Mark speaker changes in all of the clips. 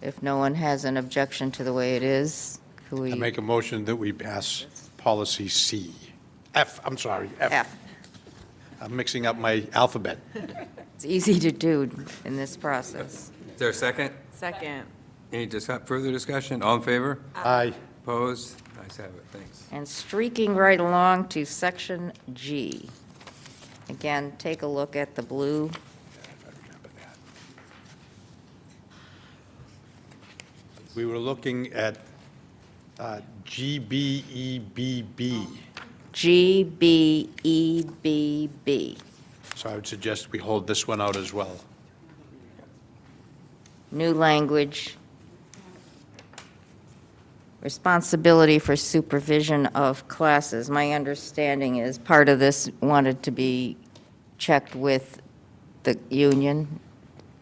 Speaker 1: If no one has an objection to the way it is, could
Speaker 2: I
Speaker 1: we?
Speaker 2: make a motion that we pass policy C, F, I'm sorry, F.
Speaker 1: F.
Speaker 2: I'm mixing up my alphabet.
Speaker 1: It's easy to do in this process.
Speaker 3: Is there a second?
Speaker 4: Second.
Speaker 3: Any dis- further discussion? All in favor?
Speaker 2: Aye.
Speaker 3: Opposed? Nice have it, thanks.
Speaker 1: And streaking right along to section G. Again, take a look at the blue.
Speaker 2: We were looking at uh, E, GBEBB,
Speaker 1: G, B, E, B, B.
Speaker 2: so I would suggest we hold this one out as well.
Speaker 1: New language. Responsibility for supervision of classes. My understanding is part of this wanted to be checked with the union,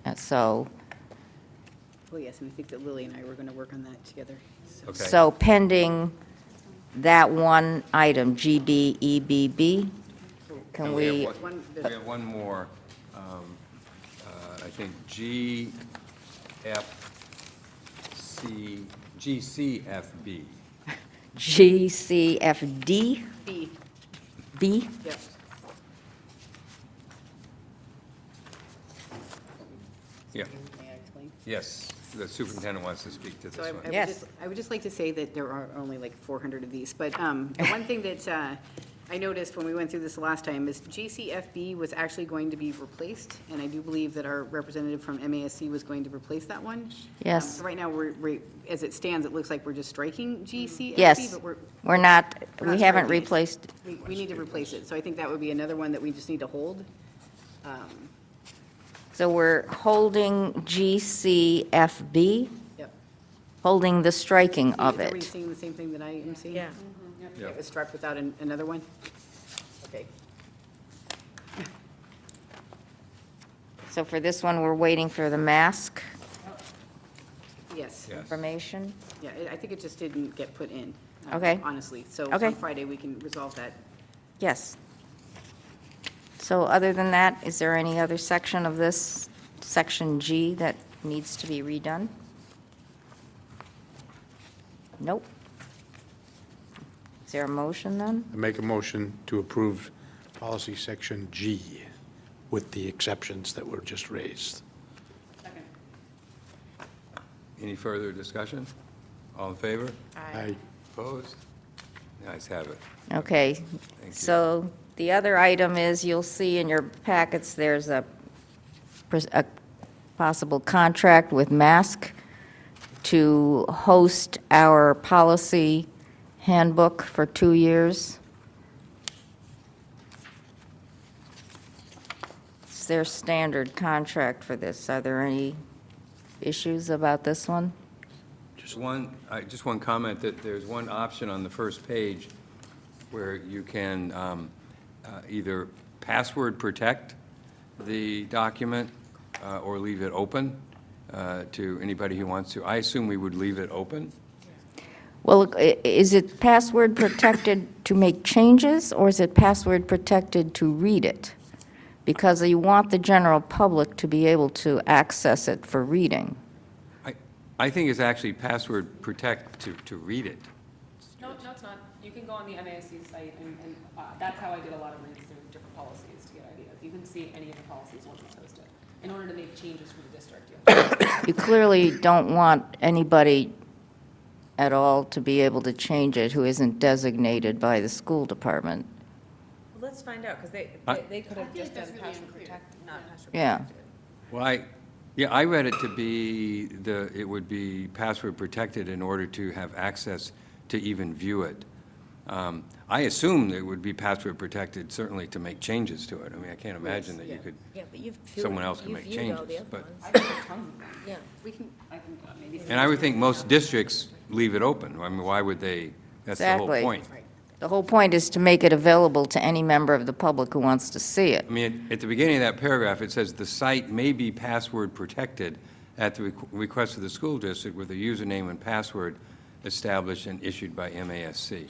Speaker 1: and so.
Speaker 5: Well, yes, and I think that Lily and I were going to work on that together. so-
Speaker 3: Okay.
Speaker 1: So pending that one item, GBEBB, can we,
Speaker 3: have one-
Speaker 5: One-
Speaker 3: We have one more, um, uh, I think, G, F, C, G, C, F, B.
Speaker 1: GCFDB?
Speaker 5: B, yep.
Speaker 3: Yeah,
Speaker 5: May I explain?
Speaker 3: yes, the superintendent wants to speak to
Speaker 5: So
Speaker 3: this
Speaker 5: I- I would
Speaker 3: one.
Speaker 1: Yes.
Speaker 5: just- I would just like to say that there are only like 400 of these, but um, the one thing that uh, I noticed when we went through this last time is GCFB was actually going to be replaced, and I do believe that our representative from MASC was going to replace that one. Um,
Speaker 1: Yes.
Speaker 5: so Right now, we're, we're- as it stands, it looks like we're just striking GCFB.
Speaker 1: Yes.
Speaker 5: But we're,
Speaker 1: We're not,
Speaker 5: We're not
Speaker 1: we haven't
Speaker 5: striking it.
Speaker 1: replaced,
Speaker 5: we- we need to replace it, so I think that would be another one that we just need to hold.
Speaker 1: so we're holding GCFB,
Speaker 5: Yep.
Speaker 1: holding the striking
Speaker 5: Is
Speaker 1: of
Speaker 5: everybody
Speaker 1: it.
Speaker 5: seeing the same thing that I am seeing?
Speaker 4: Yeah.
Speaker 3: Yeah.
Speaker 5: It was struck without an- another one? Okay.
Speaker 1: So for this one, we're waiting for the mask
Speaker 5: Yes.
Speaker 3: Yes.
Speaker 1: information.
Speaker 5: Yeah, I- I think it just didn't get put in. uh,
Speaker 1: Okay.
Speaker 5: Honestly. So
Speaker 1: Okay.
Speaker 5: on Friday, we can resolve that.
Speaker 1: Yes. So other than that, is there any other section of this, section G, that needs to be redone? Nope. Is there a motion then?
Speaker 2: I make a motion to approve policy section G with the exceptions that were just raised.
Speaker 3: Any further discussion? All in favor?
Speaker 2: Aye.
Speaker 3: Opposed? Nice have it.
Speaker 1: Okay,
Speaker 3: you.
Speaker 1: so the other item is, you'll see in your packets, there's a, pres- a possible contract with Mask to host our policy handbook for two years. It's their standard contract for this. Are there any issues about this one?
Speaker 3: Just one, I, just one comment, that there's one option on the first page where you can um, uh, either password protect the document uh, or leave it open uh, to anybody who wants to. I assume we would leave it open?
Speaker 1: Well, i- is it password protected to make changes, or is it password protected to read it? Because you want the general public to be able to access it for reading.
Speaker 3: I, I think it's actually password protect to, to read it.
Speaker 6: No, no, it's not. You can go on the MASC site, and, and uh, that's how I did a lot of reads through different policies to get ideas. You can see any of the policies once it's posted. In order to make changes for the district, you have to
Speaker 1: You clearly don't want anybody at all to be able to change it who isn't designated by the school department.
Speaker 4: Let's find out, because they,
Speaker 3: I-
Speaker 4: they- they could have just done password protect, not password
Speaker 1: Yeah.
Speaker 4: protected.
Speaker 3: Well, I, yeah, I read it to be the, it would be password protected in order to have access to even view it. Um, I assumed it would be password protected certainly to make changes to it. I mean, I can't imagine that you could,
Speaker 7: Yeah, but you've.
Speaker 3: someone
Speaker 7: viewed-
Speaker 3: else can
Speaker 7: you've
Speaker 3: make
Speaker 7: viewed all the
Speaker 3: changes,
Speaker 7: other
Speaker 3: but-
Speaker 7: ones. Yeah,
Speaker 5: We can, I can uh, maybe.
Speaker 3: and I would think most districts leave it open. I mean, why would they? That's the whole
Speaker 1: Exactly.
Speaker 3: point.
Speaker 1: The whole point is to make it available to any member of the public who wants to see it.
Speaker 3: I mean, at the beginning of that paragraph, it says, "The site may be password protected at the requ- request of the school district with a username and password established and issued by MASC."